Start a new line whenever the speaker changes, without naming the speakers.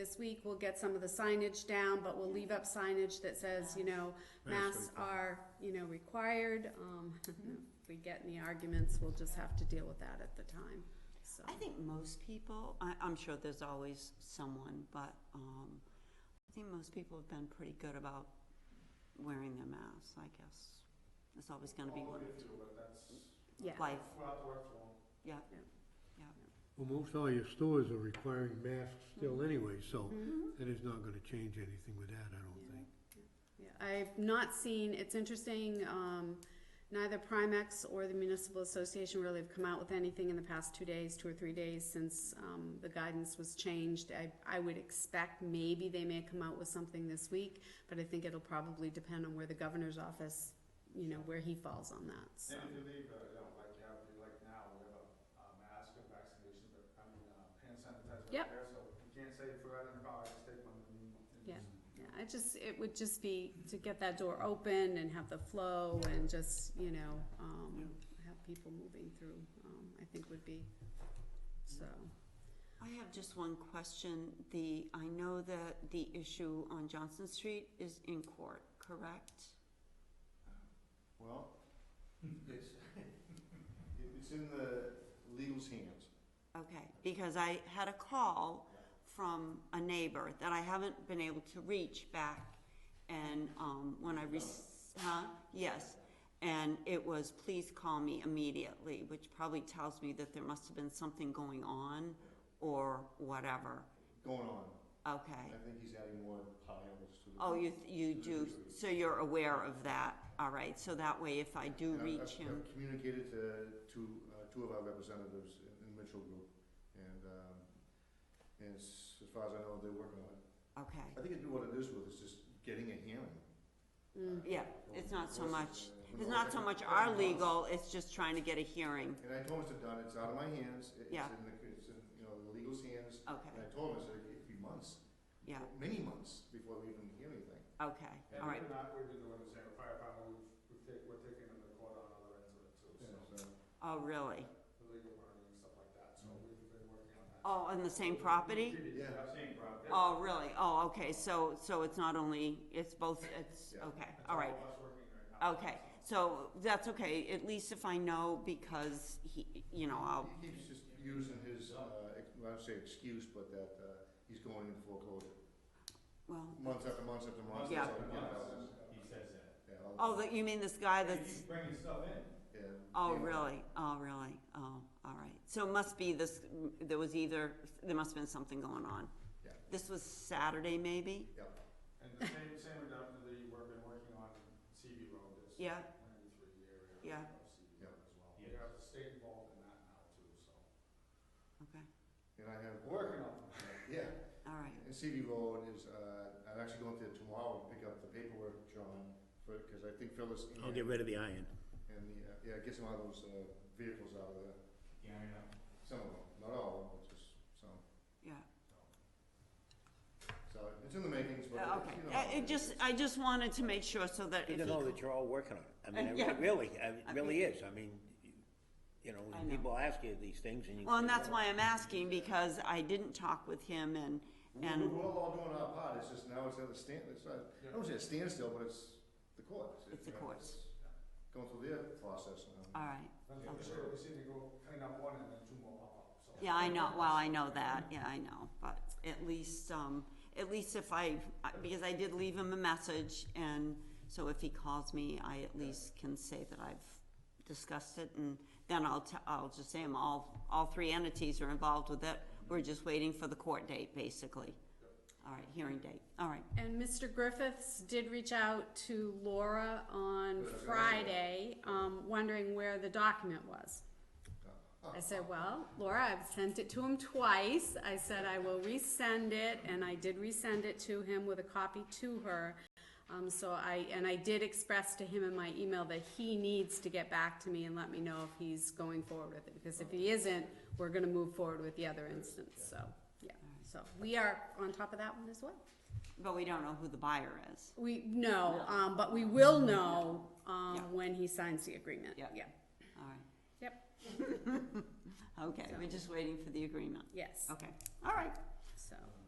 this week, we'll get some of the signage down, but we'll leave up signage that says, you know, masks are, you know, required. Um, if we get any arguments, we'll just have to deal with that at the time, so.
I think most people, I, I'm sure there's always someone, but, um, I think most people have been pretty good about wearing their masks, I guess. There's always gonna be one,
Yeah,
life, yeah.
Well, most all your stores are requiring masks still anyway, so
Mm-hmm.
that is not gonna change anything with that, I don't think.
yeah. I've not seen, it's interesting, um, neither Primex or the Municipal Association really have come out with anything in the past two days, two or three days since, um, the guidance was changed. I, I would expect maybe they may come out with something this week, but I think it'll probably depend on where the governor's office, you know, where he falls on that, so.
And if you leave, uh, you know, like you have, like now, we have a, uh mask and vaccination, but I mean, uh, hand sanitizer
Yep.
right there, so you can't say if we're out in the car, I just take one and leave one.
Yeah. Yeah, I just, it would just be to get that door open and have the flow and just, you know, um, have people moving through, um, I think would be, so.
I have just one question. The, I know that the issue on Johnson Street is in court, correct?
Well, it's, it's in the legal's hands.
Okay, because I had a call from a neighbor that I haven't been able to reach back. And, um, when I rec- huh, yes, and it was, please call me immediately, which probably tells me that there must have been something going on or whatever.
Going on,
Okay,
think he's adding more piles to the.
oh, you, you do, so you're aware of that, all right, so that way if I do
And I've-
reach
I've-
him,
I've communicated to, to, uh, two of our representatives in in Mitchell Group, and, um, and s- as far as I know, they're working on it.
okay.
I think it's what it is with, it's just getting a hearing.
Mm.
Yeah, it's not so much, it's not so much our legal, it's just trying to get a hearing,
And I told Mr. Dunn, it's out of my hands, it- it's in
Yeah.
the, it's in, you know, the legal's hands,
okay,
and I told him, I said, it'd be months,
yeah.
many months before we even hear anything.
Okay, all right,
So,
oh, really?
so
Mm-hmm.
we-
Oh, on the same property?
Yeah,
Oh, really? Oh, okay, so, so it's not only, it's both, it's,
Yeah.
okay, all right. Okay, so that's okay, at least if I know, because he, you know, I'll,
He keeps just using his, uh, ex- well, I don't say excuse, but that, uh, he's going in foreclosure,
well,
months after months after months.
Yeah.
it's like, you know,
He says that.
yeah, all
oh,
the-
that, you mean this guy
He's
that's,
bringing stuff in.
yeah,
oh,
yeah.
really? Oh, really? Oh, all right. So it must be this, there was either, there must have been something going on.
Yeah.
This was Saturday, maybe?
And the same, same with that, the, we've been working on CB Road, this
Yeah,
ninety-three area.
Yeah.
of CB Road as well. We
Yeah.
have the state involved in that now too, so.
okay,
And I have.
Working on it.
Yeah,
all right,
and CV Road is, uh, I'm actually going there tomorrow and pick up the paperwork, John, for, cause I think Phyllis.
I'll get rid of the iron.
And the, uh, yeah, get some of those, uh, vehicles out of there,
Yeah, I know.
some of them, not all, of them, but just some,
yeah.
so it's in the makings, but.
Uh, Okay,
you know,
Uh, it just, I just wanted to make sure so that if
You
he
know that you're all working on it. I
Uh,
mean,
yeah.
it really, I-
I
it really is. I mean, you know,
I
when
know.
people ask you these things and you.
Well, and that's why I'm asking, because I didn't talk with him and,
we-
and,
We're all doing our part, it's just now it's at a stand, it's not, I don't say a standstill, but it's the courts.
It's the
you know,
courts.
it's Going through their process now.
all right.
That's for sure, we seem to go clean up one and then two more pop up, so.
Yeah, I know, well, I know that, yeah, I know, but at least, um, at least if I, I- because I did leave him a message and so if he calls me, I at least can say that I've discussed it and then I'll t- I'll just say I'm all, all three entities are involved with it. We're just waiting for the court date, basically. All right, hearing date, all right,
And Mr. Griffiths did reach out to Laura on
Yeah, I got it.
Friday, um, wondering where the document was. I said, well, Laura, I've sent it to him twice. I said I will resend it, and I did resend it to him with a copy to her. Um, so I, and I did express to him in my email that he needs to get back to me and let me know if he's going forward with it, because if he isn't, we're gonna move forward with the other instance, so, yeah. So we are on top of that one as well.
but we don't know who the buyer is.
We, no, um, but we will know,
Yeah.
um, when he signs the agreement, yeah,
Yep. All right.
Yep.
Okay, we're just waiting for the agreement.
yes,
Okay, all right.
so.